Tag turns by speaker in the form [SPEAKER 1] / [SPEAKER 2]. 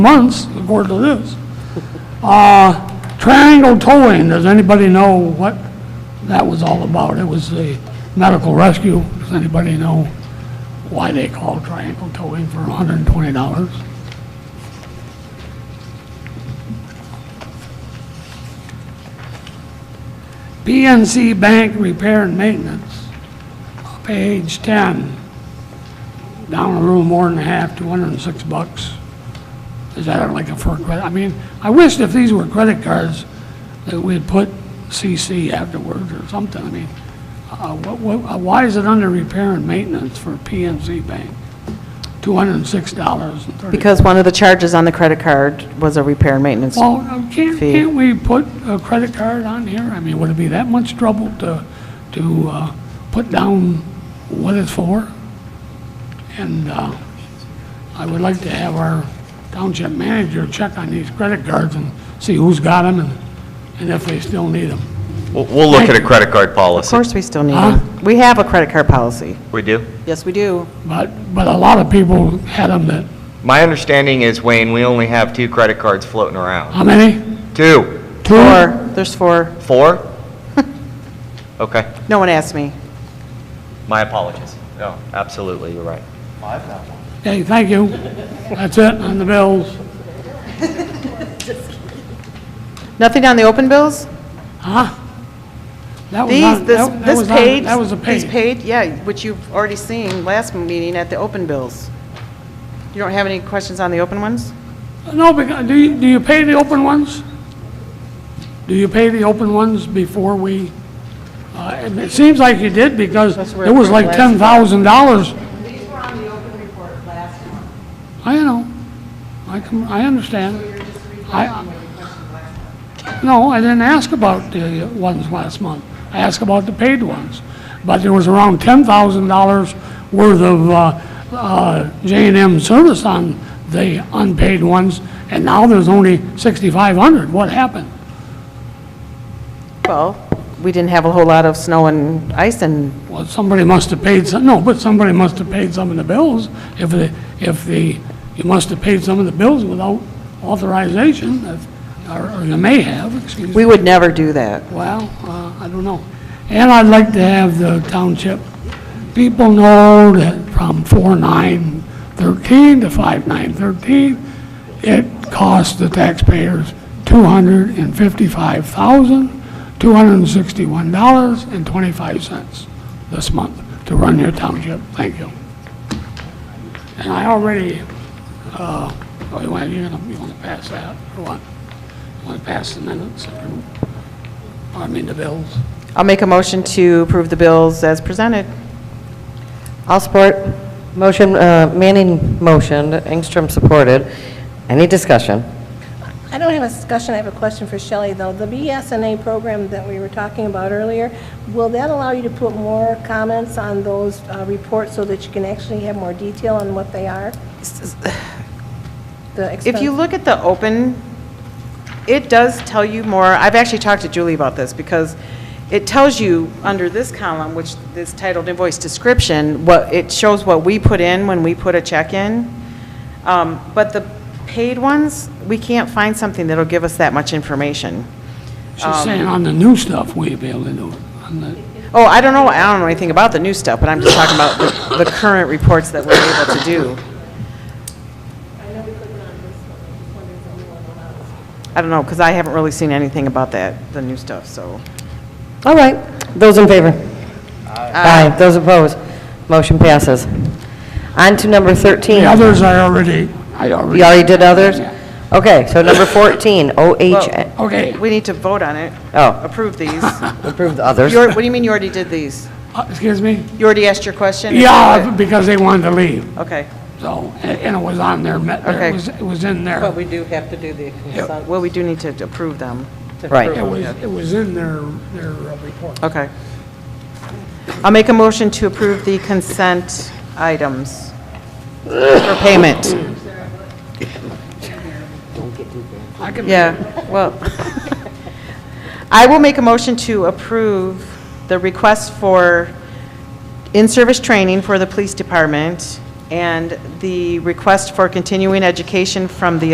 [SPEAKER 1] months, according to this. Uh, Triangle Towing, does anybody know what that was all about? It was the medical rescue. Does anybody know why they called Triangle Towing for $120? PNC Bank Repair and Maintenance, page 10, down a little more than half, 206 bucks. Is that like a for credit? I mean, I wish if these were credit cards, that we'd put CC afterwards or something. I mean, uh, what- what- uh, why is it under repair and maintenance for PNC Bank? $206.30.
[SPEAKER 2] Because one of the charges on the credit card was a repair and maintenance.
[SPEAKER 1] Well, um, can't,
[SPEAKER 2] Fee.
[SPEAKER 1] can't we put a credit card on here? I mean, would it be that much trouble to, to uh, put down what it's for? And uh, I would like to have our township manager check on these credit cards and see who's got them and, and if they still need them.
[SPEAKER 3] We'll- We'll look at a credit card
[SPEAKER 2] Of
[SPEAKER 3] policy.
[SPEAKER 2] course, we still need
[SPEAKER 1] Huh?
[SPEAKER 2] them. We have a credit card policy.
[SPEAKER 3] We do.
[SPEAKER 2] Yes, we do.
[SPEAKER 1] But, but a lot of people had them that,
[SPEAKER 3] My understanding is, Wayne, we only have two credit cards floating around.
[SPEAKER 1] how many?
[SPEAKER 3] Two?
[SPEAKER 1] Two?
[SPEAKER 2] Four, there's four.
[SPEAKER 3] Four? Okay,
[SPEAKER 2] No one asked me.
[SPEAKER 3] my apologies. No, absolutely, you're right.
[SPEAKER 1] Okay, thank you. That's it on the bills.
[SPEAKER 2] Nothing on the open bills?
[SPEAKER 1] Huh? That was
[SPEAKER 2] These,
[SPEAKER 1] on-
[SPEAKER 2] this,
[SPEAKER 1] Oh, that- that
[SPEAKER 2] this
[SPEAKER 1] was on-
[SPEAKER 2] page?
[SPEAKER 1] That was a page.
[SPEAKER 2] This page, yeah, which you've already seen last meeting at the open bills. You don't have any questions on the open ones?
[SPEAKER 1] No, because, do you, do you pay the open ones? Do you pay the open ones before we, uh, and it seems like you did because
[SPEAKER 2] That's where
[SPEAKER 1] it was
[SPEAKER 2] it
[SPEAKER 1] like
[SPEAKER 2] was.
[SPEAKER 1] ten thousand dollars.
[SPEAKER 4] These were on the open report last month,
[SPEAKER 1] I know, I can, I understand.
[SPEAKER 4] you're just
[SPEAKER 1] I,
[SPEAKER 4] reflecting what you questioned last month.
[SPEAKER 1] no, I didn't ask about the ones last month. I asked about the paid ones. But there was around ten thousand dollars worth of, uh, uh, J and M service on the unpaid ones, and now there's only sixty-five hundred. What happened?
[SPEAKER 2] Well, we didn't have a whole lot of snow and ice and
[SPEAKER 1] Well, somebody must have paid some, no, but somebody must have paid some of the bills. If the, if the, you must have paid some of the bills without authorization, if- or or you may have, excuse me.
[SPEAKER 2] we would never do that.
[SPEAKER 1] Well, uh, I don't know. And I'd like to have the township, people know that from 4913 to 5913, it costs the taxpayers $255,261.25 this month to run your township. Thank you. And I already, uh, oh, you want, you're gonna, you wanna pass that, or what? You wanna pass the minutes, or, I mean, the bills?
[SPEAKER 2] I'll make a motion to approve the bills as presented.
[SPEAKER 5] I'll support. Motion, uh, Manning motioned, Engstrom supported. Any discussion?
[SPEAKER 6] I don't have a discussion, I have a question for Shelley, though. The BSNA program that we were talking about earlier, will that allow you to put more comments on those uh, reports so that you can actually have more detail on what they are? The
[SPEAKER 2] If you
[SPEAKER 6] expense-
[SPEAKER 2] look at the open, it does tell you more, I've actually talked to Julie about this, because it tells you, under this column, which is titled invoice description, what, it shows what we put in when we put a check in. Um, But the paid ones, we can't find something that'll give us that much information.
[SPEAKER 1] She's saying on the new stuff, we'd be able to do it. On the-
[SPEAKER 2] Oh, I don't know, I don't know anything about the new stuff, but I'm just talking about the- the current reports that we're able to do. I don't know, because I haven't really seen anything about that, the new stuff, so.
[SPEAKER 5] All right. Those in favor? Aye. Those opposed? Motion passes. On to number 13.
[SPEAKER 1] The others I already, I
[SPEAKER 5] You
[SPEAKER 1] already,
[SPEAKER 5] already did others? Okay, so number 14, OH,
[SPEAKER 1] okay.
[SPEAKER 2] We need to vote on it.
[SPEAKER 5] Oh.
[SPEAKER 2] Approve these.
[SPEAKER 5] approve the others.
[SPEAKER 2] You alre- What do you mean you already did these?
[SPEAKER 1] Uh, Excuse me?
[SPEAKER 2] You already asked your question?
[SPEAKER 1] Yeah, because they wanted to leave,
[SPEAKER 2] Okay,
[SPEAKER 1] so, and and it was on their, me- it
[SPEAKER 2] Okay.
[SPEAKER 1] was, it was in their,
[SPEAKER 7] But
[SPEAKER 1] it
[SPEAKER 7] we do have to do the consent.
[SPEAKER 2] well, we do need to approve them.
[SPEAKER 7] to
[SPEAKER 5] Right.
[SPEAKER 7] approve
[SPEAKER 1] was,
[SPEAKER 7] them.
[SPEAKER 1] it was in their, their uh, report.
[SPEAKER 2] Okay. I'll make a motion to approve the consent items for payment.
[SPEAKER 1] I can,
[SPEAKER 2] Yeah, well, I will make a motion to approve the request for in-service training for the police department and the request for continuing education from the